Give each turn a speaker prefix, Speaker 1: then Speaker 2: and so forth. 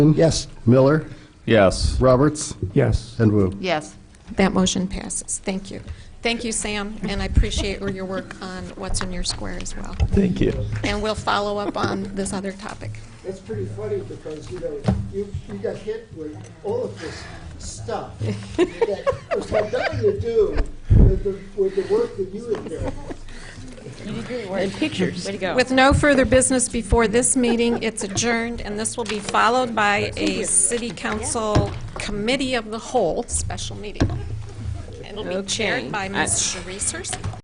Speaker 1: Yes. Miller,
Speaker 2: Yes.
Speaker 1: Roberts,
Speaker 3: Yes.
Speaker 1: and Wu.
Speaker 4: Yes.
Speaker 5: That motion passes. Thank you. Thank you, Sam, and I appreciate your work on what's in your square as well.
Speaker 3: Thank you.
Speaker 5: And we'll follow up on this other topic.
Speaker 6: It's pretty funny because, you know, you, you got hit with all of this stuff. that was had nothing to do with the, with the work that you had done.
Speaker 4: And pictures. Way to go.
Speaker 5: With no further business before this meeting, it's adjourned, and this will be followed by a city council committee of the whole special meeting. It'll be chaired by Ms. Sharice herself.